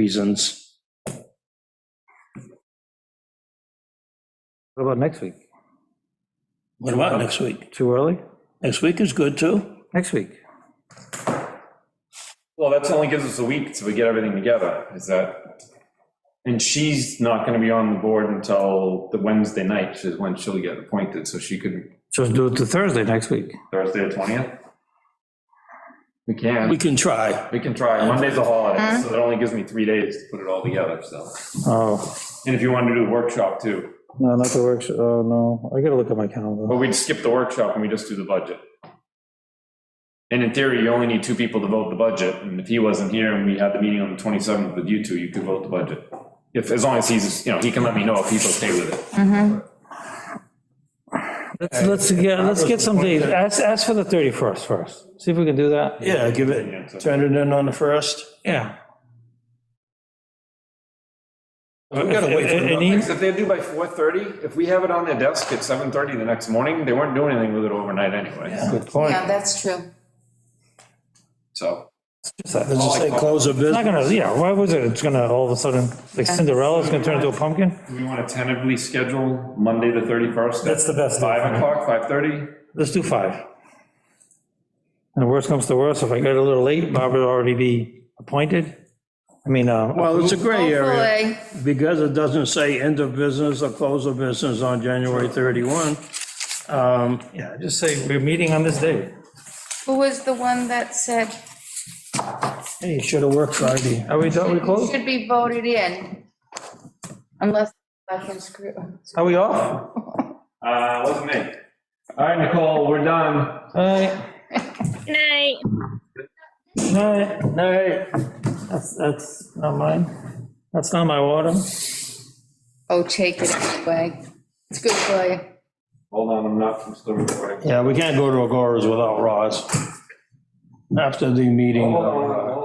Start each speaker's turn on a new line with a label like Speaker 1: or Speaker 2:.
Speaker 1: reasons.
Speaker 2: What about next week?
Speaker 3: What about next week?
Speaker 2: Too early?
Speaker 3: Next week is good too.
Speaker 2: Next week?
Speaker 4: Well, that's only gives us a week to get everything together, is that, and she's not gonna be on the board until the Wednesday night, is when she'll get appointed, so she could,
Speaker 2: So let's do it to Thursday next week.
Speaker 4: Thursday the twentieth?
Speaker 3: We
Speaker 4: We can,
Speaker 3: can try.
Speaker 4: we can try, Monday's a holiday, so that only gives me three days to put it all together, so.
Speaker 2: Oh,
Speaker 4: And if you wanted to do a workshop too,
Speaker 2: no, not the workshop, oh, no, I gotta look at my calendar.
Speaker 4: but we'd skip the workshop and we just do the budget. And in theory, you only need two people to vote the budget, and if he wasn't here and we had the meeting on the 27th with you two, you could vote the budget. If, as long as he's, you know, he can let me know if he's okay with it.
Speaker 2: Let's, let's get, let's get some dates. Ask, ask for the 31st first. See if we can do that.
Speaker 3: Yeah, give
Speaker 4: Yeah, so-
Speaker 3: it, turn it in on the first.
Speaker 2: Yeah.
Speaker 3: We gotta wait for
Speaker 2: An
Speaker 3: the-
Speaker 2: e-
Speaker 4: If they do by 4:30, if we have it on their desk at 7:30 the next morning, they weren't doing anything with it overnight anyway,
Speaker 2: Good point.
Speaker 5: Yeah, that's true.
Speaker 4: so.
Speaker 3: Does it say close of business?
Speaker 2: Not gonna, yeah, why was it? It's gonna, all of a sudden, like Cinderella's gonna turn into a pumpkin?
Speaker 4: Do we want to tentatively schedule Monday, the 31st?
Speaker 2: That's the best day for
Speaker 4: 5
Speaker 2: me.
Speaker 4: o'clock, 5:30?
Speaker 2: Let's do five. And worst comes to worst, if I get a little late, Barbara will already be appointed. I mean, uh,
Speaker 3: Well, it's a gray area
Speaker 5: Hopefully,
Speaker 3: because it doesn't say end of business or close of business on January 31. Um,
Speaker 2: yeah, just say, we're meeting on this day.
Speaker 5: who was the one that said
Speaker 3: Hey, should have worked Friday.
Speaker 2: Are we done, we
Speaker 5: you
Speaker 2: closed?
Speaker 5: should be voted in? Unless I can screw.
Speaker 2: Are we off?
Speaker 4: Uh, wasn't me. All right, Nicole, we're done.
Speaker 2: Alright,
Speaker 6: night.
Speaker 2: alright, alright. That's, that's not mine. That's not my water.
Speaker 5: Oh, take it anyway. It's good for you.
Speaker 4: Hold on, I'm not, I'm still recording.
Speaker 3: Yeah, we can't go to Agoras without Roz. After the meeting.
Speaker 4: Hold on, hold on,